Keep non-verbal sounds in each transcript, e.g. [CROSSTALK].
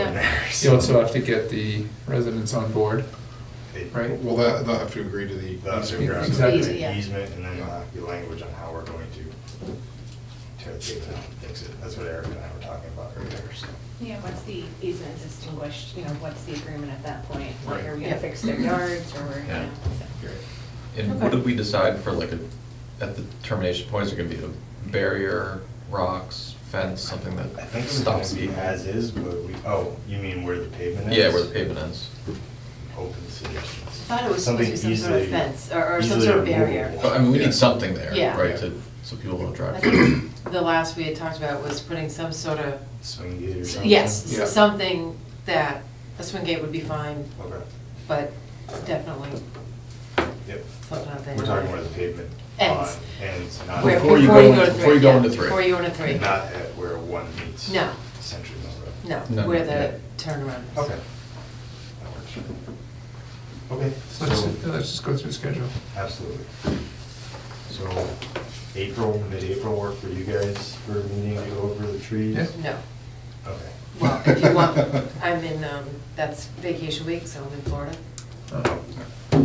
on there. You uh, so- also have to get the residents on board, right? Well, that, they'll have to agree to the. That's a ground, Exactly. the easement, and then uh, the language on how we're going to tear the pavement out and fix it. That's what Eric and I were talking about earlier, so. Yeah, once the easement is extinguished, you know, what's the agreement at that point? Like, are we Right. gonna fix their yards, or we're Yeah. gonna? And what did we decide for like a, at the termination point, is it gonna be a barrier, rocks, fence, something I that think it was going stops to be people? as is, but we, oh, you mean where the pavement is? Yeah, where the pavement ends. Open suggestions. I thought it was supposed to be some sort of fence or- or some sort of barrier. But I mean, we need something there, Yeah. right, to, so people don't I drive. think The last we had talked about was putting some sort of, Swing gate or something? yes, Yeah. something that, a swing gate would be fine, Okay, but definitely yep. something out there. We're talking where the pavement Ends. And it's not. Where- Before you go into- three, before you go yeah, into three. Before you go into three. Not at where one meets. No. Century Mill No, Road. No, where yeah. the turnaround is. Okay. That works. Okay, So Let's, uh, so, let's just go through the schedule. absolutely. So, April, mid-April work for you guys for a meeting to go over the trees? Yeah. No, Okay. well, if you want, I'm in, um, that's vacation week, so I'm in Florida. Uh,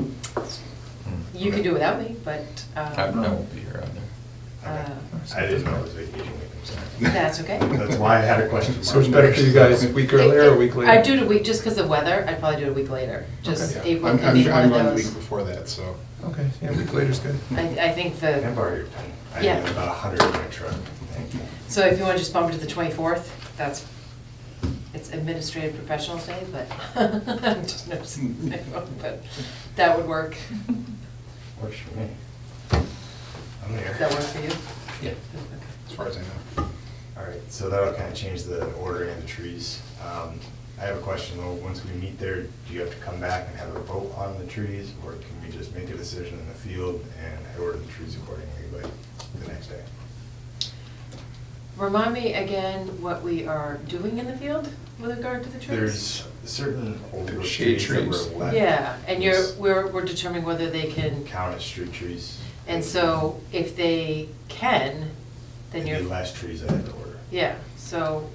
You can do without me, but, Hmm. I I uh, won't be here either. Okay. Uh, I didn't know it was vacation week, I'm sorry. that's okay. That's why I had a question mark. So it's better for you guys a week earlier or a week later? I'd do it a week, just because of weather, I'd probably do it a week later, just Okay. April could be one I'm of on the those. week before that, so. Okay, yeah, a week later's good. I, I think Can I the, borrow your pen? I Yeah. have about a hundred in my truck. Thank you. so if you want to just bump it to the twenty-fourth, that's, it's administrative professional day, but [LAUGHS] I'm [LAUGHS] just noticing, my phone, but that would work. Works for me. I'm there. Does that work for you? Yeah. Okay. as far as I know. All right, so that'll kind of change the ordering of the trees. Um, I have a question though, once we meet there, do you have to come back and have a vote on the trees? Or can we just make a decision in the field and I order the trees accordingly like the next day? Remind me again what we are doing in the field with regard to the trees? There's certain older Shade trees that were trees. left. Yeah, and you're, These we're, we're determining whether they can, Count as street trees. and so if they can, then And you're. The last trees I had to order. Yeah, so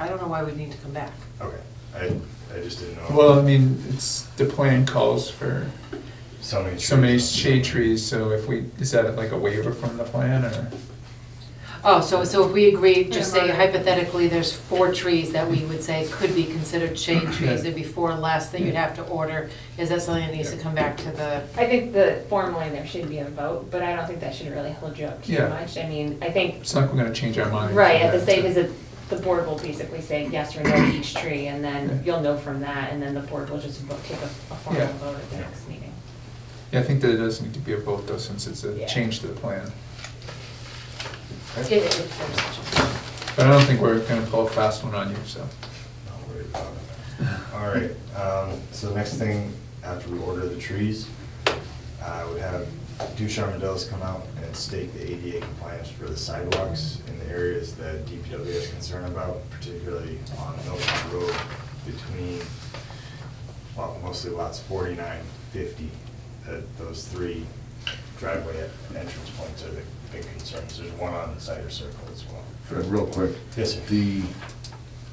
I don't know why we need to come back. Okay, I, I just didn't know. Well, I mean, it's, the plan calls for So many trees. so many shade trees, so if we, is that like a waiver from the plan or? Oh, so, so if we agree, just say Yeah. hypothetically, there's four trees that we would say could be considered shade trees, Yeah. there'd be four less that you'd have to order. Is that something that needs to Yeah. come back to the, I think that formally there should be a vote, but I don't think that should really hold you up too Yeah. much. I mean, I think, It's not gonna change our mind. right, at the state state visit, the board will basically say yes or no to each tree, and Yeah. then you'll know from that, and then the board will just vote- take a a formal Yeah. vote at the Yeah. next meeting. Yeah, I think that it does need to be a vote though, since it's a Yeah. change to the plan. if- if there's such a- But I don't think we're gonna pull a fast one on you, so. Not worried about it. All right, um, so the next thing, after we order the trees, I would have two Charmandeles come out and stake the ADA compliance for the sidewalks in the areas that DPW is concerned about, particularly on Milltown Road between, well, mostly lots 49, 50. That those three driveway entrance points are the big concerns. There's one on Cider Circle as well. Fred, real quick. Yes, sir. The,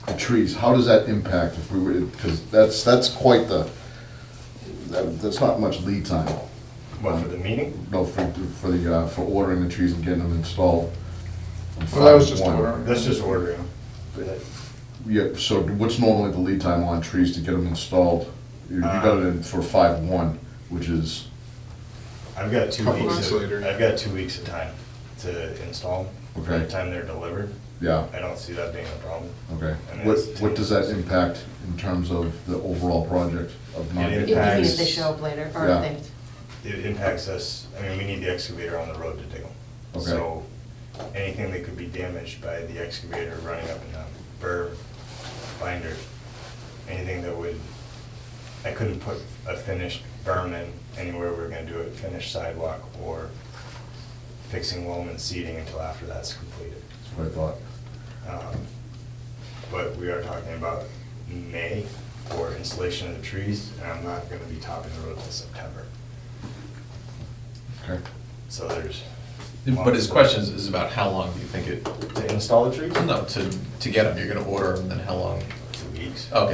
the trees, how does that impact if we were, because that's, that's quite the, that- that's not much lead time. What, for the meeting? No, for, for the, uh, for ordering the trees and getting them installed. Well, that was just One. ordering. That's just ordering. Yeah, so what's normally the lead time on trees to get them installed? You you got it in for five one, which is, I've got two Couple weeks, months of- later. I've got two weeks of time to install them, by the Okay. time they're delivered. yeah, I don't see that being a problem. okay. And What, it's- what does that impact in terms of the overall project of not It If getting? you mean Impacts. if they show up later, or Yeah. if they, It impacts us, I mean, we need the excavator on the road to dig them. So anything that could be damaged by the excavator running up and down, burr, binder, anything that would, I couldn't put a finished berm in anywhere we were gonna do it, finished sidewalk or fixing loam and seeding until after that's completed. That's what I thought. Um, But we are talking about May for installation of the trees, and I'm not gonna be topping the road till September. Okay. So there's. But his question is- is about how long do you think it, To install the trees? no, to, to get them, you're gonna order them, then how long? Two weeks. Okay,